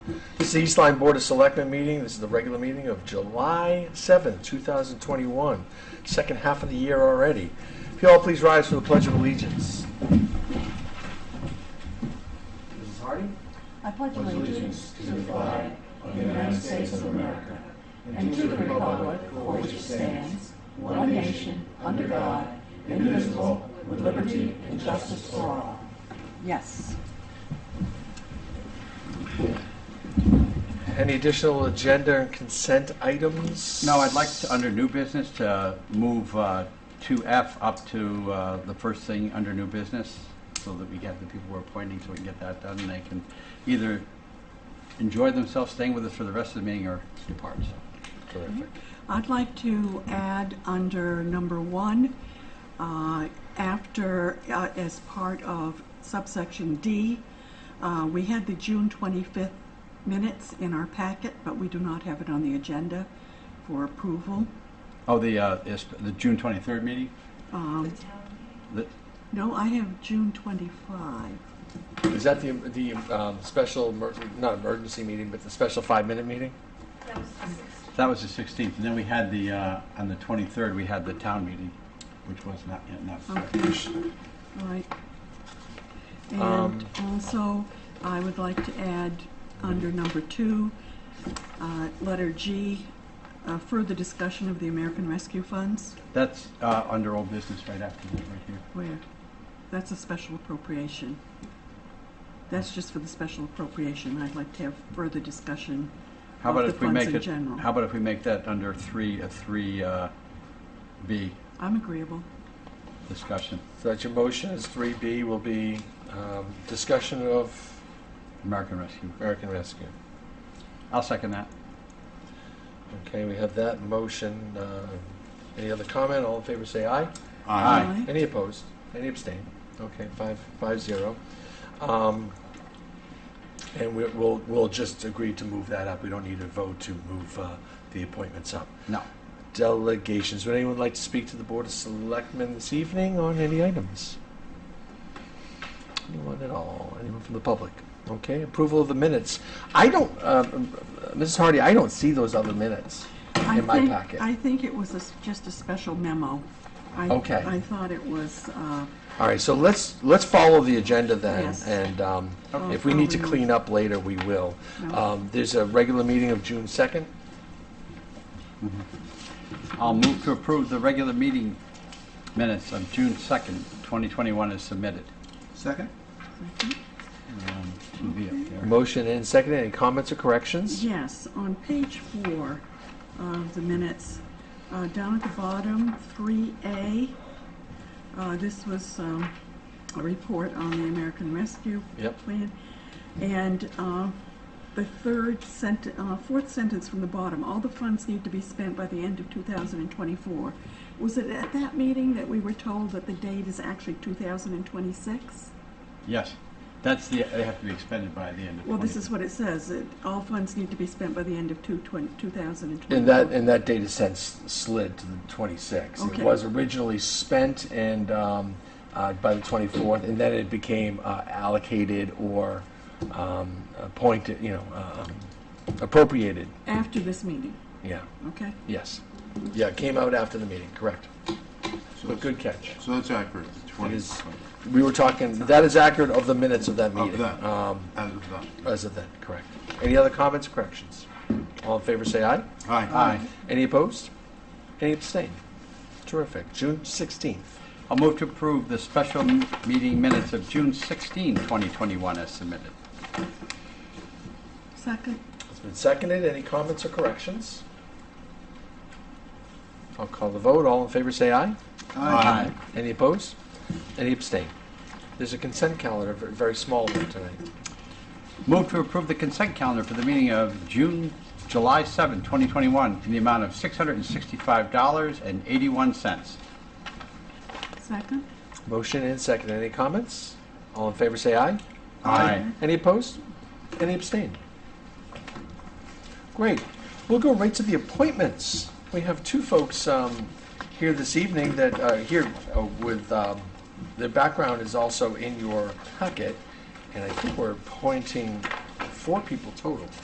is the East Line Board of Selectmen meeting. This is the regular meeting of July seventh, two 2021, second half of the year already. If you all please rise for the Pledge of Allegiance. Mrs. Harding? I pledge Pledge allegiance to the flag of the United States of America and to the republic for which it stands, one nation, under God, indivisible, with liberty and justice for all. Yes. Any additional agenda and consent items? No, I'd like to, under new business, to move uh, 2F up to uh, the first thing under new business, so that we get the people we're appointing, so we can get that done, and they can either enjoy themselves staying with us for the rest of the meeting or depart. Terrific. I'd like to add under number one, uh, after, uh, as part of subsection D, uh, we had the June 25th minutes in our packet, but we do not have it on the agenda for approval. Oh, the, uh, is the June 23rd meeting? Um, The- No, I have June 25. Is that the, the um, special, emer- not emergency meeting, but the special five-minute meeting? That was the sixth. That was the 16th, and then we had the, uh, on the 23rd, we had the town meeting, which was not, yet not. Right. Um, And also, I would like to add, under number two, uh, letter G, uh, further discussion of the American Rescue Funds, That's uh, under old business right after that, right here. where, that's a special appropriation. That's just for the special appropriation. I'd like to have further discussion How of about the if we funds make in it, general. how about if we make that under three, a three, uh, B I'm agreeable. discussion, So that's your motion, is 3B will be um, discussion of American Rescue? American Rescue. I'll second that. Okay, we have that motion. Uh, Any other comment? All in favor, say aye. Aye. Any opposed? Any abstain? Okay, five, five zero. Um, And we- we'll, we'll just agree to move that up. We don't need a vote to move uh, the appointments up. No. Delegations. Would anyone like to speak to the Board of Selectmen this evening on any items? Anyone at all? Anyone from the public? Okay, approval of the minutes. I don't, um, Mrs. Hardy, I don't see those other minutes. I In my think- packet. I think it was a s- just a special memo. I- Okay. I thought it was, uh, All right, so let's, let's follow the agenda then, Yes. and um, Okay. if we need to Oh, clean up later, we will. No. Um, There's a regular meeting of June 2nd. I'll move to approve the regular meeting minutes of June 2nd, 2021 as submitted. Second? Um, to be up there. Motion and second, any comments or corrections? Yes, on page four of the minutes, uh, down at the bottom, 3A, uh, this was um, a report on the American Rescue Yep. Plan. And uh, the third sent, uh, fourth sentence from the bottom, all the funds need to be spent by the end of 2024. Was it at that meeting that we were told that the date is actually 2026? Yes, that's the, they have to be expended by the end of 20. Well, this is what it says, that all funds need to be spent by the end of 2024. And that, and that date has since slid to the 26th. It Okay. was originally spent and, um, uh, by the 24th, and then it became uh, allocated or um, appointed, you know, um, appropriated, After this meeting, yeah, okay? yes. Yeah, it came out after the meeting, correct. So But that's- good catch. So that's accurate, the It 20, is- We were talking, that is accurate of the minutes of that Of meeting. that. Um, as of that. As of then, correct. Any other comments, corrections? All in favor, say aye. Aye. Aye. Any opposed? Any abstain? Terrific. June 16th. I'll move to approve the special m- meeting minutes of June 16, 2021 as submitted. Second, It's been seconded. Any comments or corrections? I'll call the vote. All in favor, say aye. Aye. Any opposed? Any abstain? There's a consent calendar, a very small one tonight. Move to approve the consent calendar for the meeting of June, July 7, 2021, in the amount of $665.81. second, Motion and second. Any comments? All in favor, say aye. Aye. Any opposed? Any abstain? Great. We'll go right to the appointments. We have two folks um, here this evening that are here uh, with, um, their background is also in your packet, and I think we're appointing four people total.